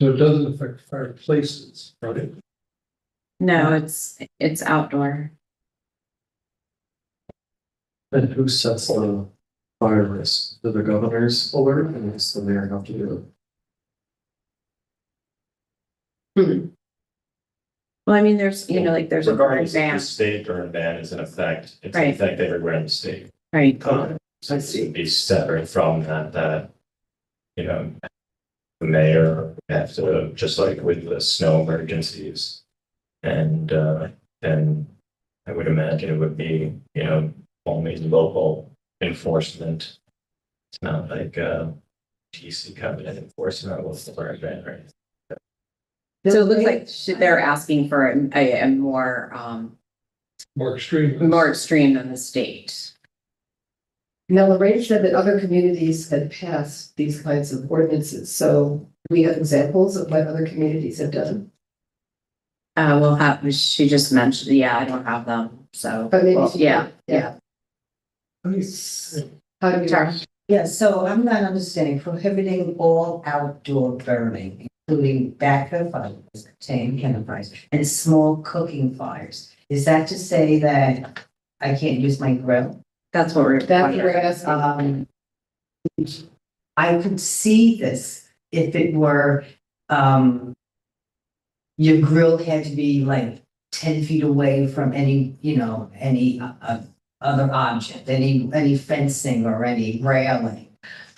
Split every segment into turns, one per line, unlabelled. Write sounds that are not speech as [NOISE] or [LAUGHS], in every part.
So it doesn't affect fireplaces, right?
No, it's, it's outdoor.
And who sets the fire risk? Do the governors alert and does the mayor have to do it?
Hmm. Well, I mean, there's, you know, like there's a
Regardless if the
ban,
state or a ban is in effect, it's in
Right.
effect everywhere in the state.
right?
I see.
Be separate from that, that, you know, the mayor have to, just like with the snow emergencies. And, uh, and I would imagine it would be, you know, only local enforcement. It's not like, uh, DC covenant enforcement with the fire ban, right?
So it looks like should- they're asking for a- a, a more, um,
More extreme.
more extreme than the state.
Now, Lorraine said that other communities had passed these kinds of ordinances, so we have examples of what other communities have done.
Uh, we'll have, she just mentioned, yeah, I don't have them, so.
But maybe. she-
Yeah, yeah.
How do
Sorry.
we,
Yeah, so I'm not understanding prohibiting all outdoor burning, including backhoe fires, contain campfires, and small cooking fires. Is that to say that I can't use my grill?
That's what we're.
that's what we're asking.
Uh,
Um, I could see this if it were, um, your grill had to be like ten feet away from any, you know, any uh, uh, other object, any, any fencing or any railing.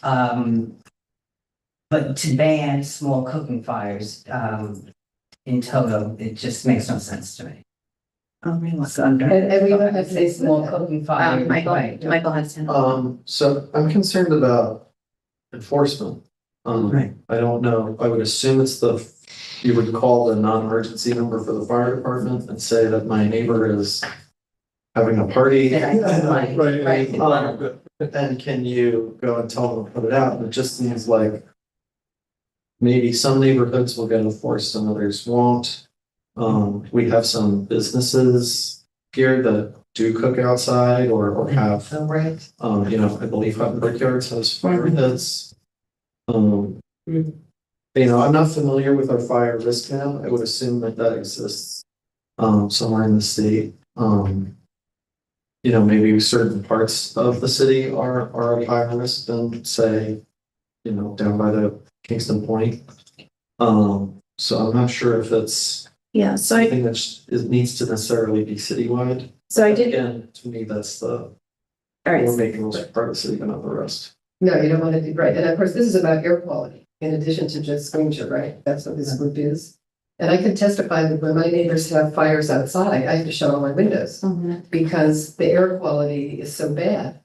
Um, but to ban small cooking fires, um, in total, it just makes no sense to me.
Oh, we look under.
And, and we don't have
[LAUGHS]
to Ah, say small
Small
code.
cooking
Um,
fires,
Michael,
right?
Michael Hudson.
Um, so I'm concerned about enforcement.
Right.
Um, I don't know, I would assume it's the, you would call the non-emergency number for the fire department and say that my neighbor is having a party.
That I don't like.
Right,
Right.
Um, and can you go and tell them to put it out? And it just seems like maybe some neighborhoods will get enforced and others won't. Um, we have some businesses here that do cook outside or, or have,
Oh, right.
um, you know, I believe Hutton Brickyards has fire pits. Um,
Mhm.
you know, I'm not familiar with our fire risk now. I would assume that that exists um, somewhere in the state. Um, you know, maybe certain parts of the city are, are at higher risk than say, you know, down by the Kingston Point. Um, so I'm not sure if it's
Yeah, so I,
something that sh- it needs to necessarily be citywide.
so I did,
Again, to me, that's the,
all right,
we're making rules for part of the city, but not the rest.
No, you don't want to do, right, and of course, this is about air quality, in addition to just danger, right? That's what this group is. And I can testify that when my neighbors have fires outside, I have to shut all my windows.
Mhm.
because the air quality is so bad.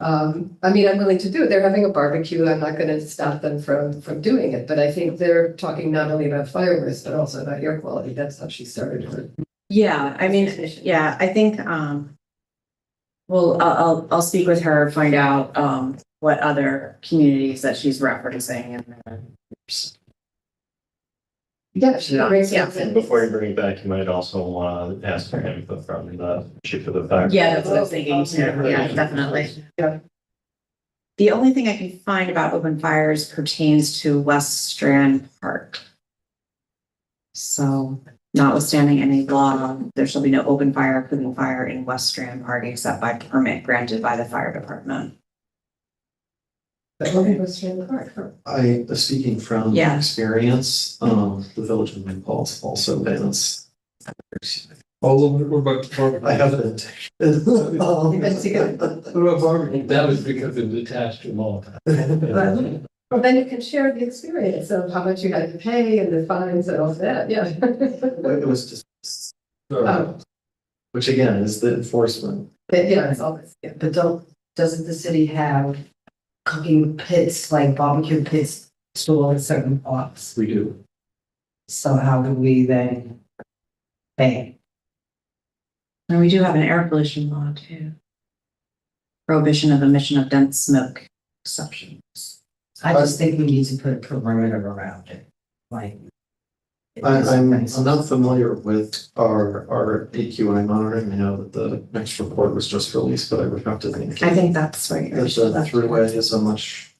Um, I mean, I'm willing to do it. They're having a barbecue. I'm not gonna stop them from, from doing it, but I think they're talking not only about fire risk, but also about air quality. That's how she started her.
yeah, I mean, yeah, I think, um. Well, I'll, I'll, I'll speak with her, find out, um, what other communities that she's referencing and then-
Yeah, she
Yeah.
brings.
Yeah.
And before you bring it back, you might also want to ask for input from the chief of the fire.
Yeah, that's what I was thinking, too. yeah, definitely. The only thing I can find about open fires pertains to West Strand Park. So notwithstanding any law, there shall be no open fire, including fire in West Strand Park except by permit granted by the fire department.
But one was in the park.
I, uh, speaking from
Yeah.
experience, um, the village of New Paltz also bans.
All over, what about
I
barbecue?
haven't. Um,
That's good.
What about barbecue? That was because it was attached to law.
Well, then you can share the experience of how much you had to pay and the fines and all that, yeah.
[LAUGHS]
[LAUGHS]
It was just, Uh,
Oh,
which again is the enforcement.
but yeah, it's all this, yeah.
But don't, doesn't the city have cooking pits, like barbecue pits, stored in certain parts?
We do.
So how do we then ban?
And we do have an air pollution law too. Prohibition of emission of dense smoke exceptions.
I just
Uh,
think we need to put a perimeter around it, like.
I, I'm, I'm not familiar with our, our AQI monitoring. I know that the next report was just released, but I would have to think.
I think that's where you're.
There's a three way is a much